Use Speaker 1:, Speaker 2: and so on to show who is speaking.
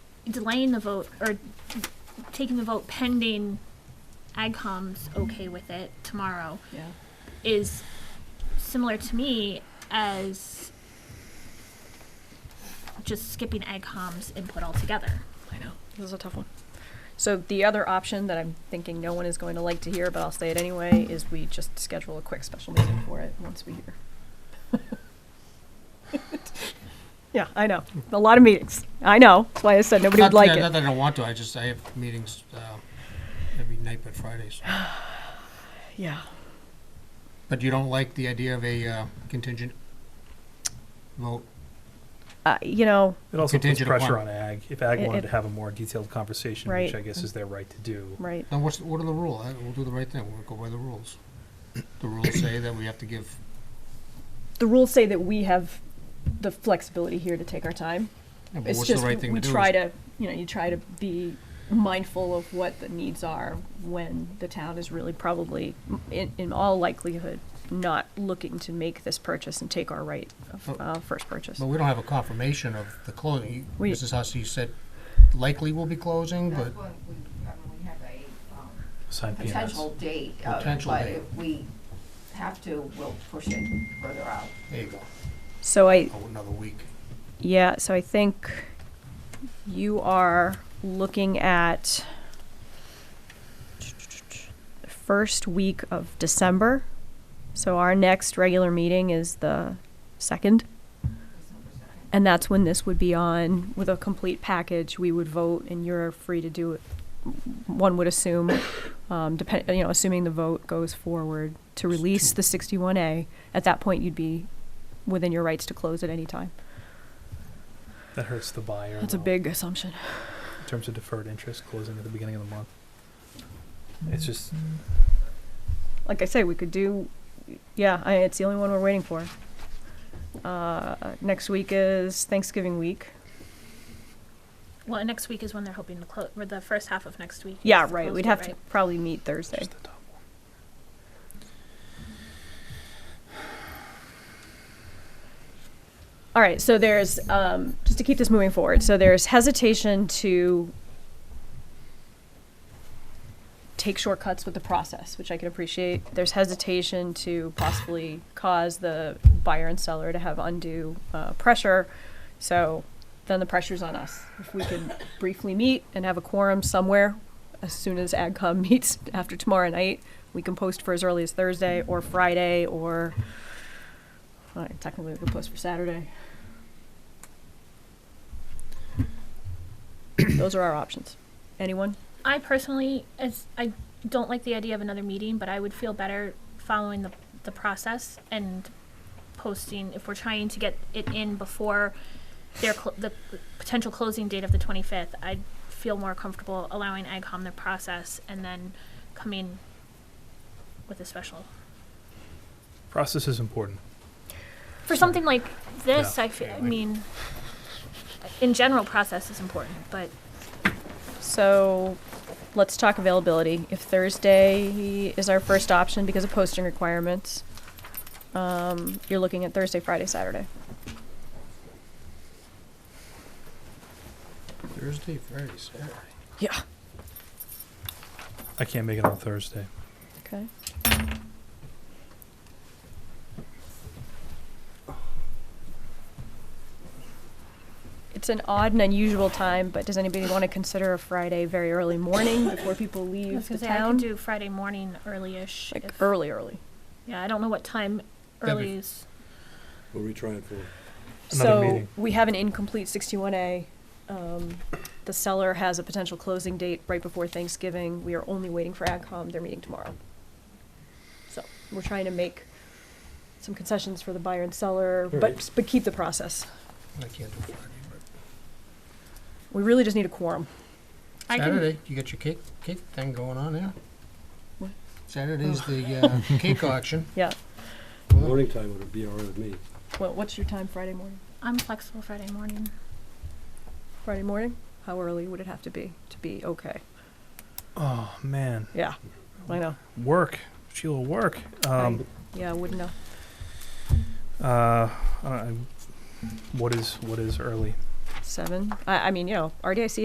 Speaker 1: delaying the vote or taking the vote pending AgCom's okay with it tomorrow
Speaker 2: Yeah.
Speaker 1: is similar to me as just skipping AgCom's input altogether.
Speaker 2: I know. This is a tough one. So the other option that I'm thinking no one is going to like to hear, but I'll say it anyway, is we just schedule a quick special meeting for it once we hear. yeah, I know. A lot of meetings. I know. That's why I said nobody
Speaker 3: Not
Speaker 2: would like
Speaker 3: that- Not
Speaker 2: it.
Speaker 3: that I don't want to, I just, I have meetings uh, every night but Fridays.
Speaker 2: Yeah.
Speaker 3: But you don't like the idea of a uh, contingent vote?
Speaker 2: Uh, you know,
Speaker 4: It also puts
Speaker 3: Contingent
Speaker 4: pressure
Speaker 3: upon-
Speaker 4: on ag. If ag
Speaker 2: It- it-
Speaker 4: wanted to have a more detailed conversation,
Speaker 2: Right.
Speaker 4: which I guess is their right to do.
Speaker 2: right.
Speaker 3: Now, what's, what are the rule? Uh, We'll do the right thing, we'll go by the rules. The rules say that we have to give,
Speaker 2: The rules say that we have the flexibility here to take our time.
Speaker 3: yeah, but
Speaker 2: It's
Speaker 3: what's the
Speaker 2: just
Speaker 3: right
Speaker 2: we
Speaker 3: thing to do?
Speaker 2: try to, you know, you try to be mindful of what the needs are when the town is really probably, in, in all likelihood, not looking to make this purchase and take our right
Speaker 3: Oh.
Speaker 2: of uh, first purchase.
Speaker 3: But we don't have a confirmation of the closing. You-
Speaker 2: We-
Speaker 3: Mrs. Hussey said likely will be closing, but
Speaker 5: That's when we, I mean, we have a um,
Speaker 4: Sign PMS.
Speaker 5: potential date, uh,
Speaker 3: Potential
Speaker 5: but
Speaker 3: date.
Speaker 5: if we have to, we'll push it further out.
Speaker 3: there you go,
Speaker 2: So I,
Speaker 3: oh, another week.
Speaker 2: yeah, so I think you are looking at the first week of December. So our next regular meeting is the second. And that's when this would be on with a complete package. We would vote, and you're free to do it. One would assume, um, depend, you know, assuming the vote goes forward to release the 61A. At that point, you'd be within your rights to close at any time.
Speaker 4: That hurts the buyer.
Speaker 2: That's a
Speaker 4: though,
Speaker 2: big assumption.
Speaker 4: In terms of deferred interest closing at the beginning of the month. It's just,
Speaker 2: Like I say, we could do. Yeah, I, it's the only one we're waiting for. Uh, next week is Thanksgiving week.
Speaker 1: Well, and next week is when they're hoping to close, or the first half of next week.
Speaker 2: Yeah,
Speaker 1: is to
Speaker 2: right.
Speaker 1: close
Speaker 2: We'd
Speaker 1: it,
Speaker 2: have to
Speaker 1: right?
Speaker 2: probably meet Thursday.
Speaker 4: just the top one.
Speaker 2: All right, so there's, um, just to keep this moving forward, so there's hesitation to take shortcuts with the process, which I can appreciate. There's hesitation to possibly cause the buyer and seller to have undue uh, pressure. So then the pressure's on us. If we can briefly meet and have a quorum somewhere as soon as AgCom meets after tomorrow night, we can post for as early as Thursday or Friday or well, technically we could post for Saturday. Those are our options. Anyone?
Speaker 1: I personally, as I don't like the idea of another meeting, but I would feel better following the the process and posting if we're trying to get it in before their cl- the potential closing date of the 25th. I'd feel more comfortable allowing AgCom the process and then coming with a special
Speaker 4: Process is important.
Speaker 1: for something like this.
Speaker 4: Yeah,
Speaker 1: I fe-
Speaker 3: yeah,
Speaker 1: I
Speaker 3: like-
Speaker 1: mean, in general, process is important, but
Speaker 2: So let's talk availability. If Thursday is our first option because of posting requirements, um, you're looking at Thursday, Friday, Saturday.
Speaker 3: Thursday, Friday, Saturday.
Speaker 4: I can't make it on Thursday.
Speaker 2: Okay. It's an odd and unusual time, but does anybody want to consider a Friday very early morning before people
Speaker 1: I was
Speaker 2: leave the
Speaker 1: gonna say I could
Speaker 2: town?
Speaker 1: do Friday morning early-ish.
Speaker 2: Like
Speaker 1: if-
Speaker 2: early, early.
Speaker 1: Yeah, I don't know what time
Speaker 3: That'd
Speaker 1: early
Speaker 3: be-
Speaker 1: is.
Speaker 6: What are we trying for?
Speaker 4: Another
Speaker 2: So
Speaker 4: meeting.
Speaker 2: we have an incomplete sixty-one A. Um, the seller has a potential closing date right before Thanksgiving. We are only waiting for AgCom. They're meeting tomorrow. So we're trying to make some concessions for the buyer and seller, but,
Speaker 6: Alright.
Speaker 2: but keep the process.
Speaker 3: I can't do Friday,
Speaker 2: We really just need a quorum.
Speaker 3: but
Speaker 1: I can-
Speaker 3: Saturday, you got your cake, cake thing going on there.
Speaker 2: What?
Speaker 3: Saturday's the uh, cake auction.
Speaker 2: Yeah.
Speaker 3: Well,
Speaker 6: Morning time would be all right with me.
Speaker 2: Well, what's your time Friday morning?
Speaker 1: I'm flexible Friday morning.
Speaker 2: Friday morning? How early would it have to be to be okay?
Speaker 4: Oh, man.
Speaker 2: Yeah, I know.
Speaker 4: Work. Sheila, work. Um,
Speaker 2: Yeah, I wouldn't know.
Speaker 4: uh, I don't- I- what is, what is early?
Speaker 2: Seven? I, I mean, you know, RDIC